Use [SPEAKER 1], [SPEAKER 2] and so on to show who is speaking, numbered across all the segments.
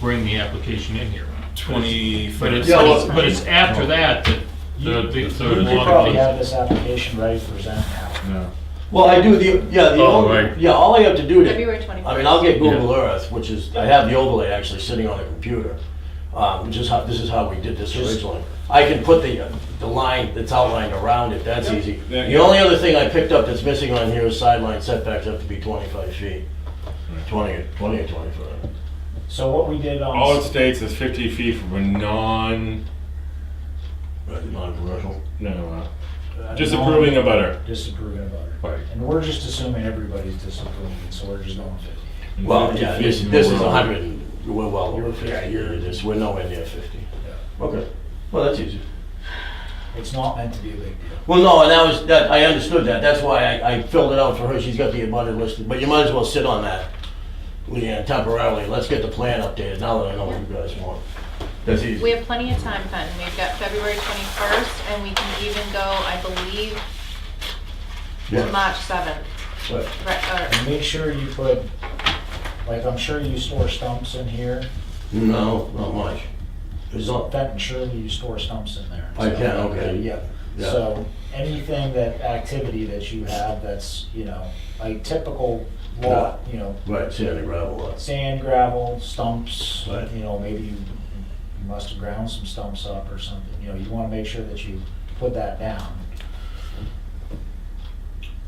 [SPEAKER 1] bring the application in here.
[SPEAKER 2] Twenty.
[SPEAKER 1] But it's,
[SPEAKER 3] Yeah, well-
[SPEAKER 1] but it's after that that the, the- the
[SPEAKER 4] You- you
[SPEAKER 3] could
[SPEAKER 1] law
[SPEAKER 5] probably
[SPEAKER 1] takes-
[SPEAKER 5] have this application ready to present now.
[SPEAKER 4] No.
[SPEAKER 3] Well, I do the, yeah, the,
[SPEAKER 4] Oh,
[SPEAKER 3] only-
[SPEAKER 4] right.
[SPEAKER 3] yeah, all I have to do to.
[SPEAKER 6] February 21st.
[SPEAKER 3] I mean, I'll get Google
[SPEAKER 4] Yeah.
[SPEAKER 3] Earth, which is, I have the overlay actually sitting on the computer, um, which is how, this is how we did this originally. I can put the, uh, the line that's outlined around it, that's easy.
[SPEAKER 2] There
[SPEAKER 3] The
[SPEAKER 2] you go.
[SPEAKER 3] only other thing I picked up that's missing on here is sideline setbacks have to be 25 feet, 20, or- 20 or 25.
[SPEAKER 5] So what we did on.
[SPEAKER 2] All it states is fifty feet from a non,
[SPEAKER 3] Right, non-commercial.
[SPEAKER 2] no,
[SPEAKER 5] uh,
[SPEAKER 2] uh, disapproving
[SPEAKER 5] non-
[SPEAKER 2] a butter.
[SPEAKER 5] Disapproving of other.
[SPEAKER 2] Right.
[SPEAKER 5] And we're just assuming everybody's disapproving, so we're just going fifty.
[SPEAKER 3] Well,
[SPEAKER 2] 50
[SPEAKER 3] yeah,
[SPEAKER 2] feet
[SPEAKER 3] this,
[SPEAKER 2] from
[SPEAKER 3] this is
[SPEAKER 2] road.
[SPEAKER 3] 100, and we're well over
[SPEAKER 5] You're-
[SPEAKER 3] 50,
[SPEAKER 5] yeah,
[SPEAKER 3] You're
[SPEAKER 5] you're-
[SPEAKER 3] just- we're nowhere near 50. Okay, well, that's easy.
[SPEAKER 5] It's not meant to be a big deal.
[SPEAKER 3] Well, no, and that was, that, I understood that, that's why I, I filled it out for her, she's got the abutted listed, but you might as well sit on that, Leanne, temporarily, let's get the plan updated, now that I know what you guys want. That's
[SPEAKER 6] We
[SPEAKER 3] easy.
[SPEAKER 6] have plenty of time, Ken. We've got February 21st, and we can even go, I believe, to
[SPEAKER 3] Yeah.
[SPEAKER 6] March 7th.
[SPEAKER 3] Right.
[SPEAKER 6] Right,
[SPEAKER 5] And make sure you put, like, I'm sure you store stumps in here,
[SPEAKER 3] No, not much. It's not,
[SPEAKER 5] Benton surely you store stumps in there.
[SPEAKER 3] I can, okay, yeah. yeah.
[SPEAKER 5] So anything that, activity that you have that's, you know, like typical lot, you know,
[SPEAKER 3] Right, sandy gravel lots.
[SPEAKER 5] sand, gravel, stumps,
[SPEAKER 3] Right.
[SPEAKER 5] you know, maybe you you must have ground some stumps up or something, you know, you want to make sure that you put that down.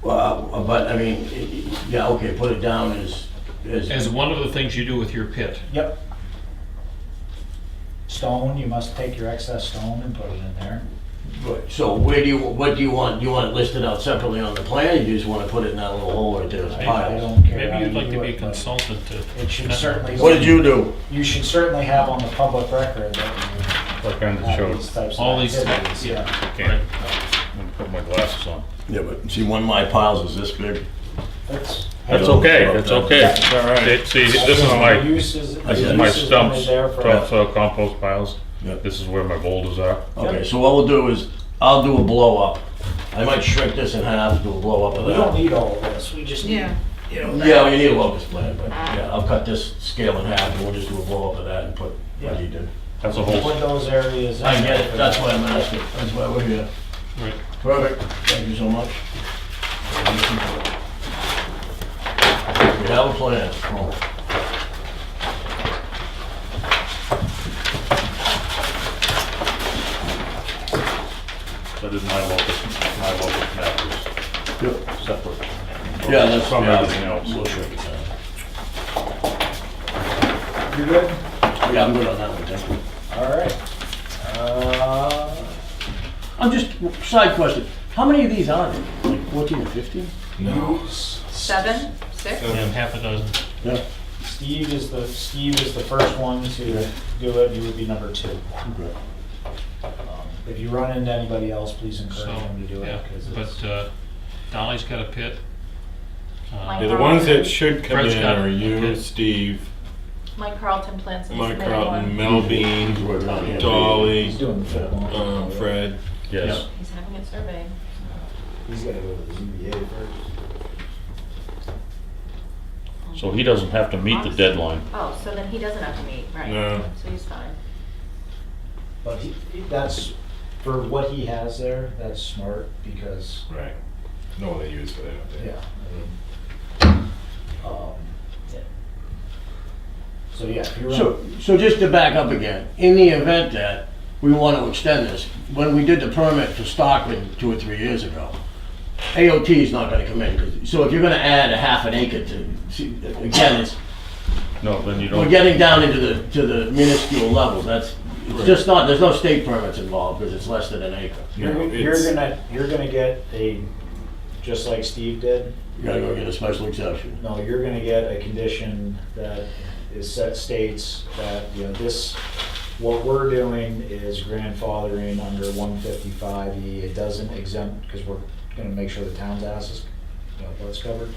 [SPEAKER 3] Well, but, I mean, i- i- yeah, okay, put it down as,
[SPEAKER 1] As
[SPEAKER 3] as,
[SPEAKER 1] one of the things you do with your pit.
[SPEAKER 5] Yep. Stone, you must take your excess stone and put it in there.
[SPEAKER 3] right. so where do you, what do you want, do you want it listed out separately on the plan, or you just wanna put it in that little hole right there as
[SPEAKER 5] I- I
[SPEAKER 3] piles?
[SPEAKER 5] don't care how
[SPEAKER 1] Maybe you'd
[SPEAKER 5] you
[SPEAKER 1] like
[SPEAKER 5] do
[SPEAKER 1] to be a
[SPEAKER 5] it, but
[SPEAKER 1] consultant to.
[SPEAKER 5] It should certainly.
[SPEAKER 3] What did you do?
[SPEAKER 5] You should certainly have on the public record that
[SPEAKER 4] Like on
[SPEAKER 5] you
[SPEAKER 4] the
[SPEAKER 5] have
[SPEAKER 4] show,
[SPEAKER 5] these types of
[SPEAKER 1] All these
[SPEAKER 5] activities,
[SPEAKER 1] things, yeah.
[SPEAKER 5] yeah.
[SPEAKER 4] can't, I'm gonna put my glasses on.
[SPEAKER 3] Yeah, but see, one of my piles is this big.
[SPEAKER 5] That's-
[SPEAKER 4] That's okay, that's okay. It's all right. It- See, this is
[SPEAKER 5] The
[SPEAKER 4] my,
[SPEAKER 5] use is-
[SPEAKER 3] I
[SPEAKER 4] this
[SPEAKER 3] said-
[SPEAKER 4] is
[SPEAKER 5] the
[SPEAKER 4] my
[SPEAKER 5] use is
[SPEAKER 4] stumps,
[SPEAKER 5] only there for-
[SPEAKER 4] topsoil compost piles.
[SPEAKER 3] Yep.
[SPEAKER 4] This is where my boulders are.
[SPEAKER 3] Okay, so what we'll do is, I'll do a blow up. I might shrink this in half, do a blow up of
[SPEAKER 5] We don't
[SPEAKER 3] that.
[SPEAKER 5] need all of this, we just need, you know. that.
[SPEAKER 3] Yeah, we need a locus plan, but yeah, I'll cut this scale in half and we'll just do a blow up of that and put what he did.
[SPEAKER 4] That's a
[SPEAKER 5] Put
[SPEAKER 4] whole,
[SPEAKER 5] those areas. in
[SPEAKER 3] I get it,
[SPEAKER 5] there.
[SPEAKER 3] that's why I'm asking, that's why we're here.
[SPEAKER 1] Right.
[SPEAKER 3] Perfect, thank you so much. We have a plan.
[SPEAKER 4] that is my locus, my locus map
[SPEAKER 3] Yep.
[SPEAKER 4] is separate.
[SPEAKER 3] Yeah, that's from
[SPEAKER 4] Everything else.
[SPEAKER 3] We'll shrink it down.
[SPEAKER 5] You good?
[SPEAKER 3] Yeah, I'm good on that one, thank you.
[SPEAKER 5] All right. Uh,
[SPEAKER 3] I'm just, side question, how many of these are there? Like 14 or 15?
[SPEAKER 2] No.
[SPEAKER 6] seven, six?
[SPEAKER 2] So-
[SPEAKER 1] And half a dozen.
[SPEAKER 3] Yeah.
[SPEAKER 5] Steve is the, Steve is the first one to do it, you would be number two. Um, If you run into anybody else, please
[SPEAKER 1] So,
[SPEAKER 5] encourage them to do
[SPEAKER 1] yeah,
[SPEAKER 5] it, because
[SPEAKER 1] but
[SPEAKER 5] it's,
[SPEAKER 1] uh, Dolly's got a pit. Uh,
[SPEAKER 2] Yeah, the ones that should come
[SPEAKER 1] Fred's
[SPEAKER 2] in
[SPEAKER 1] got it.
[SPEAKER 2] are you,
[SPEAKER 1] Okay.
[SPEAKER 2] Steve,
[SPEAKER 6] Mike Carlton plans to
[SPEAKER 2] Mike
[SPEAKER 6] submit
[SPEAKER 2] Carlton,
[SPEAKER 6] one.
[SPEAKER 2] Mel Bean, Dolly,
[SPEAKER 5] he's doing the full
[SPEAKER 2] um,
[SPEAKER 5] one.
[SPEAKER 2] Fred.
[SPEAKER 4] Yes.
[SPEAKER 6] He's having it surveyed.
[SPEAKER 5] He's gotta go to the ZBA first.
[SPEAKER 4] So he doesn't have to meet the deadline.
[SPEAKER 6] Oh, so then he doesn't have to meet, right?
[SPEAKER 2] No.
[SPEAKER 6] So he's fine.
[SPEAKER 5] But he, he- that's, for what he has there, that's smart, because,
[SPEAKER 2] Right. No one they use for that. don't they?
[SPEAKER 5] yeah. I mean, um, yeah. So, yeah, if you run.
[SPEAKER 3] So, so just to back up again, in the event that we want to extend this, when we did the permit for Stockman two or three years ago, AOT is not gonna come in, 'cause- so if you're gonna add a half an acre to, see, again, it's,
[SPEAKER 4] No, then you
[SPEAKER 3] we're
[SPEAKER 4] don't,
[SPEAKER 3] getting down into the, to the minuscule levels, that's, it's just not, there's no state permits involved, because it's less than an acre.
[SPEAKER 5] You're,
[SPEAKER 2] No,
[SPEAKER 5] you're
[SPEAKER 2] it's-
[SPEAKER 5] gonna, you're gonna get a, just like Steve did,
[SPEAKER 3] You gotta go get a special exception.
[SPEAKER 5] no, you're gonna get a condition that is set states that, you know, this, what we're doing is grandfathering under one fifty-five E. It doesn't exempt, because we're gonna make sure the town's ass is, you know, what's covered,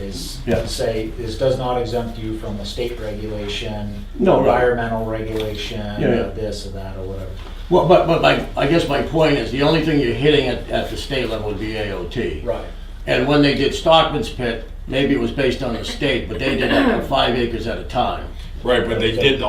[SPEAKER 5] is
[SPEAKER 3] Yeah.
[SPEAKER 5] say, this does not exempt you from a state regulation,
[SPEAKER 3] No, right.
[SPEAKER 5] environmental regulation,
[SPEAKER 3] Yeah, yeah.
[SPEAKER 5] this or that or whatever.
[SPEAKER 3] Well, but, but my, I guess my point is, the only thing you're hitting at, at the state level would be AOT.
[SPEAKER 5] Right.
[SPEAKER 3] And when they did Stockman's Pit, maybe it was based on the state, but they did it on five acres at a time.
[SPEAKER 2] Right, but they did the